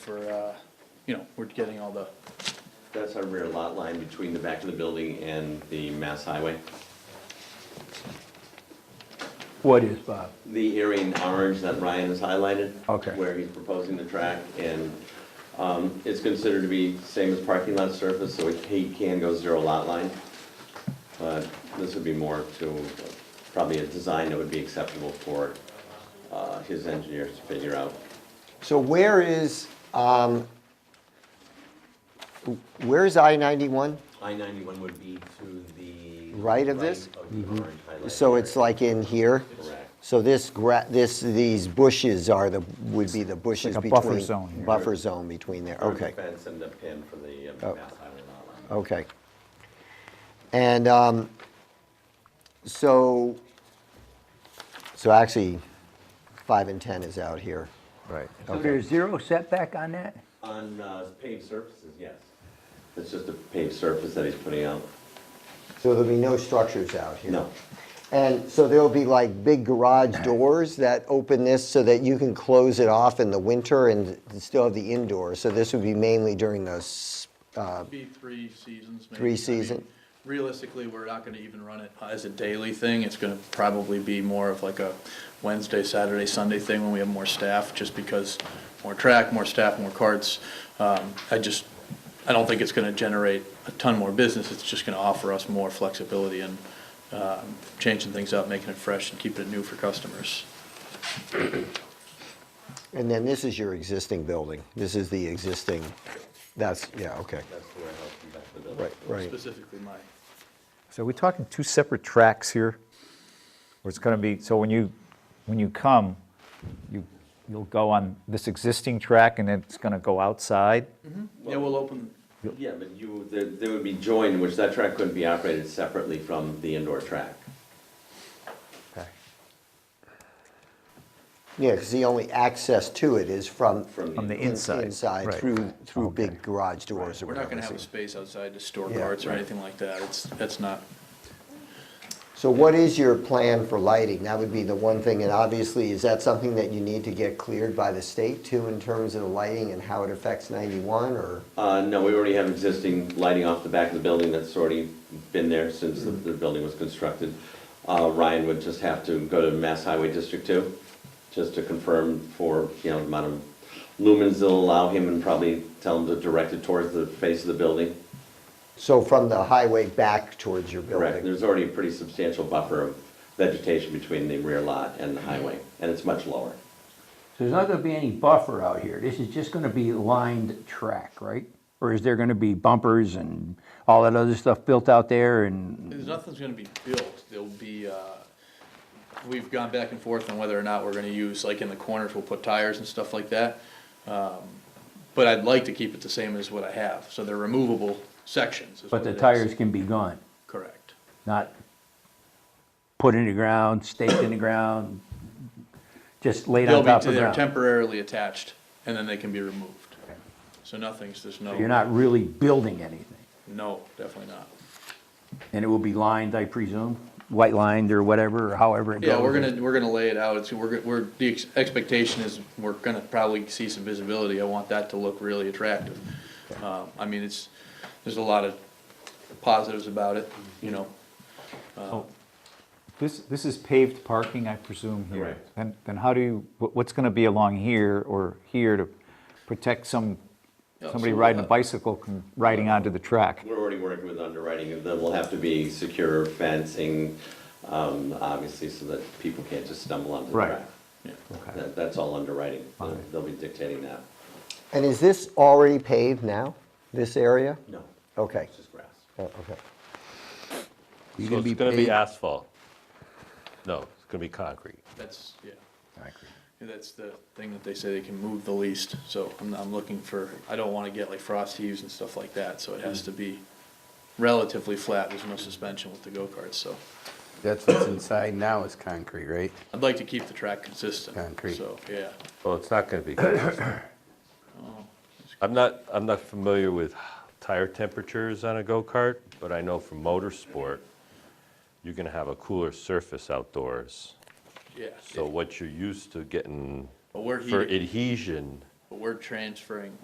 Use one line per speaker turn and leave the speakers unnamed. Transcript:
for, uh, you know, we're getting all the,
That's our rear lot line between the back of the building and the Mass Highway.
What is, Bob?
The area in orange that Ryan has highlighted.
Okay.
Where he's proposing the track, and um, it's considered to be same as parking lot surface, so it- he can go zero lot line. But this would be more to, probably a design that would be acceptable for uh, his engineers to figure out.
So where is, um, where is I-91?
I-91 would be to the.
Right of this?
right of the orange highlighted
So it's
area.
like in here?
Correct.
So this gra, this, these bushes are the, would be the bushes
like a
between.
buffer zone here.
Buffer zone between there,
Or the
okay,
Fence and the pin for the uh,
Oh.
Mass Highway lot line.
okay. And, um, so, so actually, five and 10 is out here.
Right.
So Okay.
there's
there's
zero setback on that?
On uh, paved surfaces, yes. It's just a paved surface that he's putting out.
So there'll be no structures out here?
No.
And so there'll be like big garage doors that open this so that you can close it off in the winter and still have the indoors. So this would be mainly during the, s- uh,
be three seasons maybe.
Three
I mean,
season.
Realistically, we're not gonna even run it as a daily thing. It's gonna probably be more of like a Wednesday, Saturday, Sunday thing when we have more staff, just because more track, more staff, more carts. Um, I just, I don't think it's gonna generate a ton more business. It's just gonna offer us more flexibility and, um, changing things up, making it fresh and keeping it new for customers.
and then this is your existing building. This is the existing, that's, yeah, okay.
That's the warehouse and back of the building.
Right, right.
Specifically my,
So we're talking two separate tracks here, where it's gonna be, so when you, when you come, you, you'll go on this existing track and then it's gonna go outside?
yeah, we'll open,
Yeah, but you, there, there would be joined, which that track couldn't be operated separately from the indoor track.
Okay.
Yeah, because the only access to it is from.
From
From the
in-
inside,
Inside,
right.
through, through
Okay.
big garage doors or
we're
whatever.
not gonna have a
so-
space outside to store
Yeah,
carts or
right.
anything like that. It's, that's not
So what is your plan for lighting? That would be the one thing, and obviously, is that something that you need to get cleared by the state too, in terms of the lighting and how it affects 91, or?
Uh, no, we already have existing lighting off the back of the building that's already been there since the, the building was constructed. Uh, Ryan would just have to go to Mass Highway District Two, just to confirm for, you know, the amount of lumens they'll allow him and probably tell him to direct it towards the face of the building.
So from the highway back towards your
Correct,
building?
there's already a pretty substantial buffer of vegetation between the rear lot and the highway, and it's much lower.
So there's not gonna be any buffer out here, this is just gonna be lined track, right? Or is there gonna be bumpers and all that other stuff built out there and,
There's nothing's gonna be built, there'll be, uh, we've gone back and forth on whether or not we're gonna use, like in the corners, we'll put tires and stuff like that. Um, But I'd like to keep it the same as what I have, so they're removable sections. is
but
what
the
it is.
tires can be gone,
Correct.
not put in the ground, staked in the ground, just laid
They'll
on top
be,
of the
they're
ground?
temporarily attached, and then they can be removed. So nothing's, there's no.
You're not really building anything,
No, definitely not.
and it will be lined, I presume, white lined or whatever, or however it goes?
Yeah, we're gonna, we're gonna lay it out, it's, we're, go- we're, the ex- expectation is we're gonna probably see some visibility, I want that to look really attractive. Um, I mean, it's, there's a lot of positives about it, you know,
This, this is paved parking, I presume, here?
Correct.
And, and how do you, what- what's gonna be along here or here to protect some,
Yeah,
somebody
so,
riding a
uh,
bicycle, from riding onto the track?
We're already working with underwriting, and there will have to be secure fencing, um, obviously, so that people can't just stumble onto the
Right.
track.
yeah.
Okay.
That, that's all underwriting, They'll-
Okay.
they'll be dictating that.
And is this already paved now, this area?
No,
Okay,
it's just grass.
Uh, okay.
You're
So
gonna be
it's gonna be
paved-
asphalt? No, it's gonna be concrete.
That's, yeah. Yeah, That's the thing that they say they can move the least, so I'm, I'm looking for, I don't wanna get like frost heaves and stuff like that, so it has to be relatively flat, there's no suspension with the go-karts, so.
That's what's inside now is concrete, right?
I'd like to keep the track consistent,
Concrete.
so, yeah.
Well, it's not gonna be. concrete. I'm not, I'm not familiar with tire temperatures on a go-kart, but I know from motorsport, you're gonna have a cooler surface outdoors.
Yeah,
So what you're used to getting
but we're
for
heating,
adhesion
But we're transferring,